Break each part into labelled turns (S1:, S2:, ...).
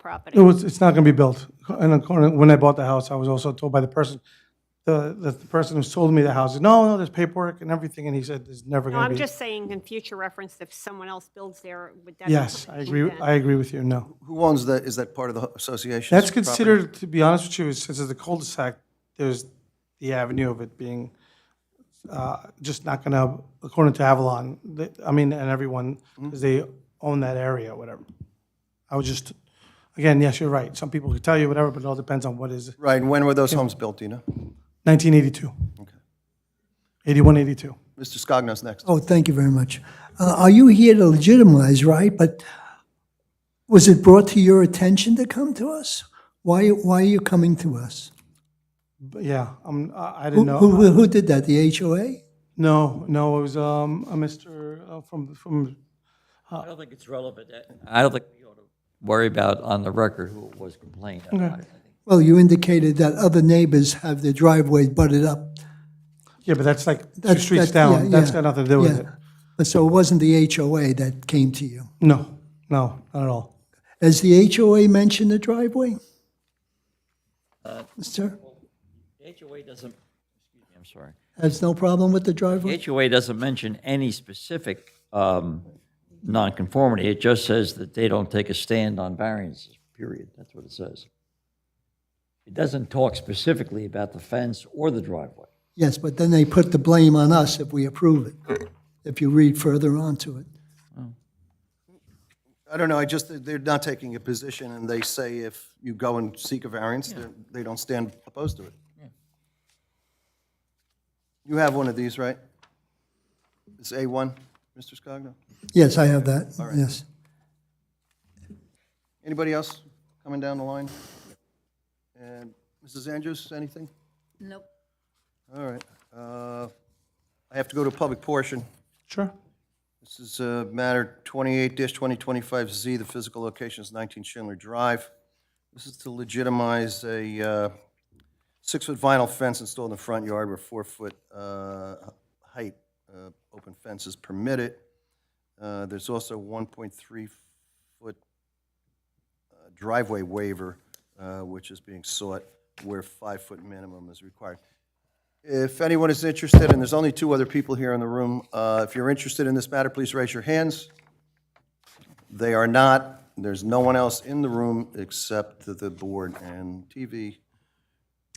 S1: property?
S2: It was, it's not going to be built. And according, when I bought the house, I was also told by the person, the, the the person who sold me the house, no, no, there's paperwork and everything, and he said, there's never
S1: No,
S2: going
S1: I'm
S2: to be.
S1: just saying in future reference, if someone else builds there, would that?
S2: Yes, I agree, with- I agree with you, no.
S3: Who owns that, is that part of the association?
S2: That's considered, to be honest with you, since it's a cul-de-sac, there's the avenue of it being uh, just not going to, according to Avalon, th- I mean, and everyone, 'cause they own that area, whatever. I was just, again, yes, you're right. Some people could tell you whatever, but it all depends on what is
S3: Right, and when were those homes built, do you know?
S2: 1982. 81, 82.
S3: Mr. Scogno's next.
S4: Oh, thank you very much. Uh, Are you here to legitimize, right? But was it brought to your attention to come to us? Why, why are you coming to us?
S2: But yeah, um, I I
S4: Who,
S2: didn't know.
S4: who who did that, the HOA?
S2: No, no, it was um, a Mr. uh, from, from,
S5: I don't think it's relevant. I don't think we ought to worry about on the record who it was complained about.
S4: Well, you indicated that other neighbors have their driveway butted up.
S2: yeah, but that's like two
S4: That's-
S2: streets
S4: that's- yeah,
S2: down. That's
S4: yeah,
S2: got nothing to do with
S4: yeah.
S2: it.
S4: But so it wasn't the HOA that came to you.
S2: No, no, not at all.
S4: Has the HOA mentioned the driveway? Sir,
S5: The HOA doesn't, excuse me, I'm sorry.
S4: has no problem with the
S5: The
S4: driveway?
S5: HOA doesn't mention any specific um, nonconformity. It just says that they don't take a stand on variances, period. That's what it says. It doesn't talk specifically about the fence or the driveway.
S4: Yes, but then they put the blame on us if we approve it, if you read further on to it.
S3: I don't know, I just, they're not taking a position, and they say if you go and seek a variance, they're- they don't stand opposed to it. You have one of these, right? It's A1, Mr. Scogno?
S4: Yes, I have that, yes.
S3: Anybody else coming down the line? And Mrs. Andrews, anything?
S6: Nope.
S3: All right. uh, I have to go to a public portion.
S2: Sure.
S3: This is uh, matter 28-2025Z, the physical location is 19 Schindler Drive. This is to legitimize a uh, six-foot vinyl fence installed in the front yard where four-foot uh, height uh, open fence is permitted. Uh, There's also 1.3-foot uh, driveway waiver, uh, which is being sought where five-foot minimum is required. If anyone is interested, and there's only two other people here in the room, uh, if you're interested in this matter, please raise your hands. They are not. There's no one else in the room except the- the board and TV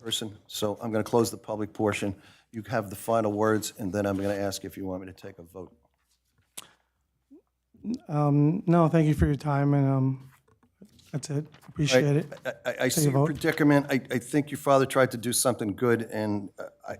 S3: person. So I'm going to close the public portion. You have the final words, and then I'm going to ask if you want me to take a vote.
S2: No, thank you for your time, and um, that's it. Appreciate it.
S3: I- I, I see your predicament. I, I think your father tried to do something good, and uh, I,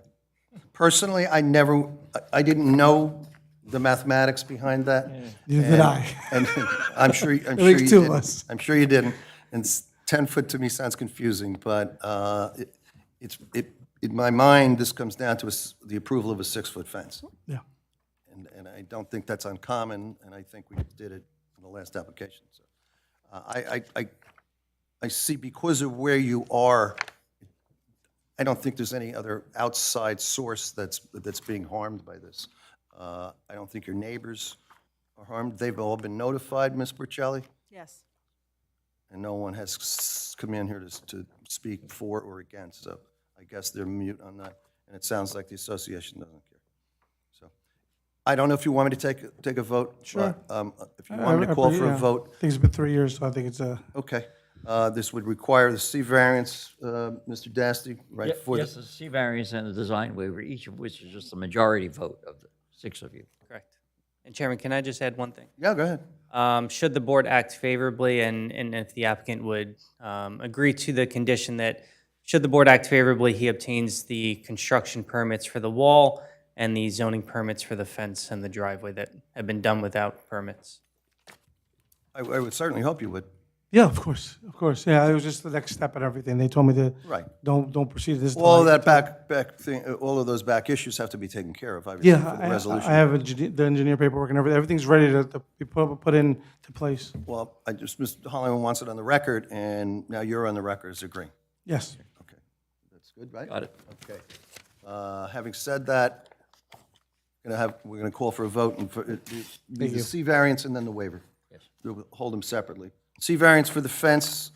S3: personally, I never, I- I didn't know the mathematics behind that.
S2: Neither did
S3: And-
S2: I.
S3: And I'm sure, I'm sure you
S2: makes
S3: didn't.
S2: two of us.
S3: I'm sure you didn't. And s- 10 foot to me sounds confusing, but uh, it- it's, it, in my mind, this comes down to a s- the approval of a six-foot fence.
S2: Yeah.
S3: And, and I don't think that's uncommon, and I think we did it in the last application. So uh, I, I, I, I see because of where you are, I don't think there's any other outside source that's, that's being harmed by this. Uh, I don't think your neighbors are harmed. They've all been notified, Ms. Burchelli?
S7: Yes.
S3: and no one has s- come in here to, s- to speak for or against, so I guess they're mute on that, and it sounds like the association doesn't care. So, I don't know if you want me to take, take a vote? Sure. If you want me to call for a
S2: Yeah.
S3: vote,
S2: I think it's been three years, so I think it's a,
S3: okay. Uh, This would require the C variance, uh, Mr. Dasty, right? for the-
S5: Yes, the C variance and the design waiver, each of which is just a majority vote of the six of you.
S8: Correct. And Chairman, can I just add one thing?
S3: Yeah, go ahead.
S8: Um, Should the board act favorably, and, and if the applicant would um, agree to the condition that, should the board act favorably, he obtains the construction permits for the wall and the zoning permits for the fence and the driveway that have been done without permits?
S3: I I would certainly hope you would.
S2: yeah, of course, of course. Yeah, it was just the next step and everything. They told me to,
S3: Right.
S2: don't, don't proceed this. till
S3: All of
S2: I-
S3: that back, back thing, uh, all of those back issues have to be taken care of, obviously,
S2: Yeah,
S3: for the
S2: I-
S3: resolution.
S2: I I have engineer- the engineer paperwork and everything. Everything's ready to to be put put in to place.
S3: Well, I just, Mr. Holloman wants it on the record, and now you're on the record as agreeing.
S2: Yes.
S3: Okay, that's good, right?
S5: Got it.
S3: Okay. Uh, Having said that, gonna have, we're gonna call for a vote and for, uh, the C variance and then the waiver. Yes. Hold them separately. C variance for the fence